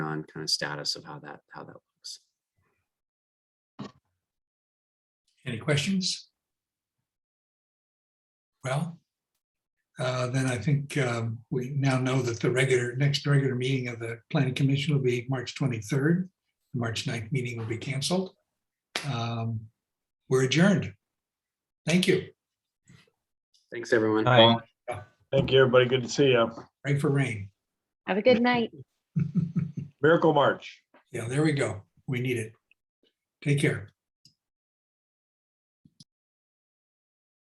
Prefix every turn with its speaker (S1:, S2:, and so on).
S1: on kind of status of how that, how that looks.
S2: Any questions? Well, uh, then I think um, we now know that the regular, next regular meeting of the planning commission will be March 23rd. The March 9th meeting will be canceled. Um, We're adjourned. Thank you.
S1: Thanks, everyone.
S3: Hi.
S4: Thank you, everybody. Good to see you.
S2: Right for rain.
S5: Have a good night.
S4: Miracle March.
S2: Yeah, there we go. We need it. Take care.